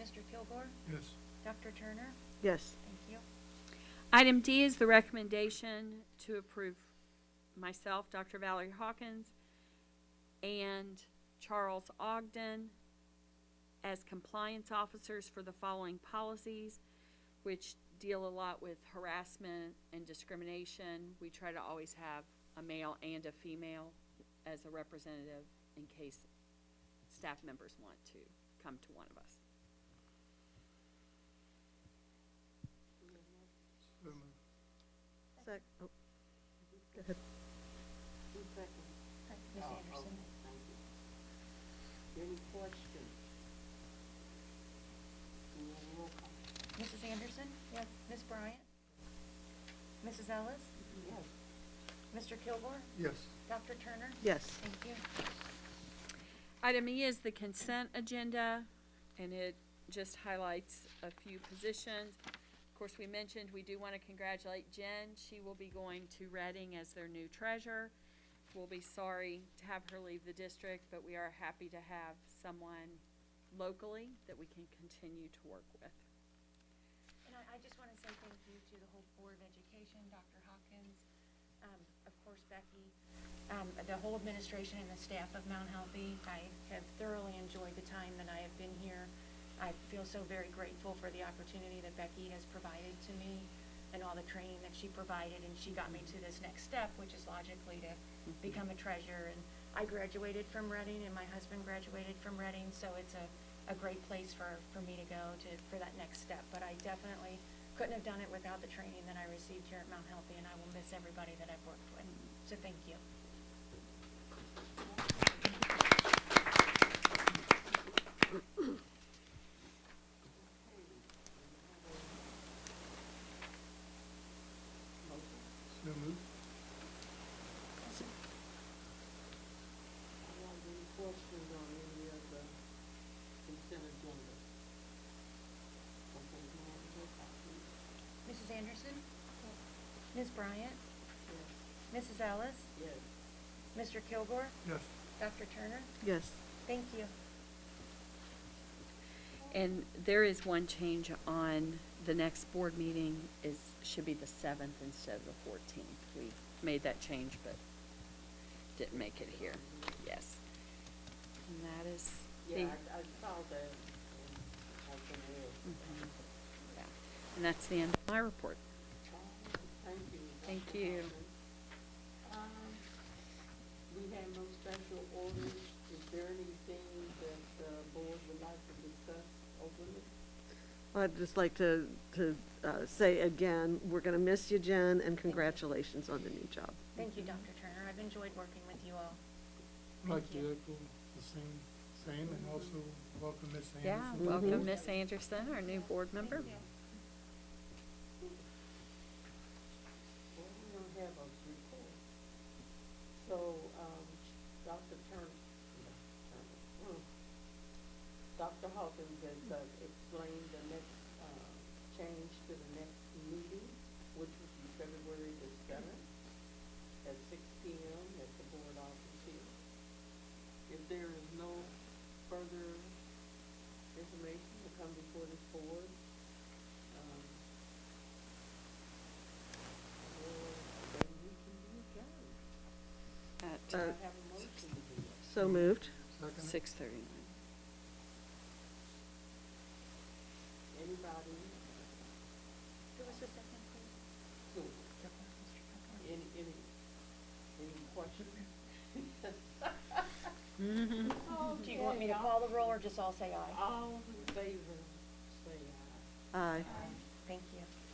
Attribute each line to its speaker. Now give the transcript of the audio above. Speaker 1: Mr. Kilgore?
Speaker 2: Yes.
Speaker 1: Dr. Turner?
Speaker 3: Yes.
Speaker 1: Thank you.
Speaker 4: Item D is the recommendation to approve myself, Dr. Valerie Hawkins, and Charles Ogden as compliance officers for the following policies, which deal a lot with harassment and discrimination. We try to always have a male and a female as a representative in case staff members want to come to one of us.
Speaker 2: So moved.
Speaker 3: Sec, oh, go ahead.
Speaker 1: Ms. Anderson?
Speaker 5: Any questions? Can we have a roll call?
Speaker 1: Mrs. Anderson? Yes. Ms. Bryant? Mrs. Ellis?
Speaker 5: Yes.
Speaker 1: Mr. Kilgore?
Speaker 2: Yes.
Speaker 1: Dr. Turner?
Speaker 3: Yes.
Speaker 1: Thank you.
Speaker 4: Item E is the consent agenda, and it just highlights a few positions. Of course, we mentioned we do want to congratulate Jen. She will be going to Reading as their new treasurer. We'll be sorry to have her leave the district, but we are happy to have someone locally that we can continue to work with.
Speaker 1: And I, I just want to say thank you to the whole Board of Education, Dr. Hawkins, um, of course Becky, um, the whole administration and the staff of Mount Healthy. I have thoroughly enjoyed the time that I have been here. I feel so very grateful for the opportunity that Becky has provided to me and all the training that she provided, and she got me to this next step, which is logically to become a treasurer. And I graduated from Reading, and my husband graduated from Reading, so it's a, a great place for, for me to go to, for that next step. But I definitely couldn't have done it without the training that I received here at Mount Healthy, and I will miss everybody that I've worked with. So thank you.
Speaker 5: Motion?
Speaker 2: So moved.
Speaker 5: I have any questions on any of the consent agenda? Okay, can I have a roll call, please?
Speaker 1: Mrs. Anderson? Ms. Bryant?
Speaker 5: Yes.
Speaker 1: Mrs. Ellis?
Speaker 5: Yes.
Speaker 1: Mr. Kilgore?
Speaker 2: Yes.
Speaker 1: Dr. Turner?
Speaker 3: Yes.
Speaker 1: Thank you.
Speaker 4: And there is one change on the next board meeting is, should be the seventh instead of the fourteenth. We made that change, but didn't make it here. Yes. And that is the,
Speaker 5: Yeah, I, I saw that. and I can add.
Speaker 4: Mhm. yeah. and that's the end of my report.
Speaker 5: Thank you.
Speaker 4: Thank
Speaker 5: Dr.
Speaker 4: you.
Speaker 5: Hoffman. Um, We have no special orders. Is there anything that the board would like to discuss openly?
Speaker 3: I'd just like to, to uh, say again, we're going to miss you, Jen, and congratulations on the new job.
Speaker 1: Thank you, Dr. Turner. I've enjoyed working with you all.
Speaker 2: I'd like to
Speaker 1: Thank you.
Speaker 2: echo the same, same, and also welcome Ms. Anderson.
Speaker 4: Yeah,
Speaker 2: to the
Speaker 4: welcome
Speaker 2: board.
Speaker 4: Miss Anderson, our new board member.
Speaker 5: Well, we don't have a report. So, um, Dr. Turner, Turner, mm, Dr. Hawkins has uh, explained the next, uh, change to the next meeting, which will be February the seventh, at six P M. at the board office here. If there is no further information to come before this board, um, well, then we can be adjourned.
Speaker 4: At
Speaker 3: Uh,
Speaker 5: I have a motion to do that.
Speaker 3: So moved.
Speaker 2: Second.
Speaker 4: six thirty-nine.
Speaker 5: Anybody,
Speaker 1: Who was the second, please?
Speaker 5: who,
Speaker 1: Mr. Kilgore?
Speaker 5: any, any, any questions?
Speaker 1: Do you want me to
Speaker 5: Okay,
Speaker 1: call the roll or just all say aye?
Speaker 5: All in favor, say aye.
Speaker 3: Aye.
Speaker 1: Thank you.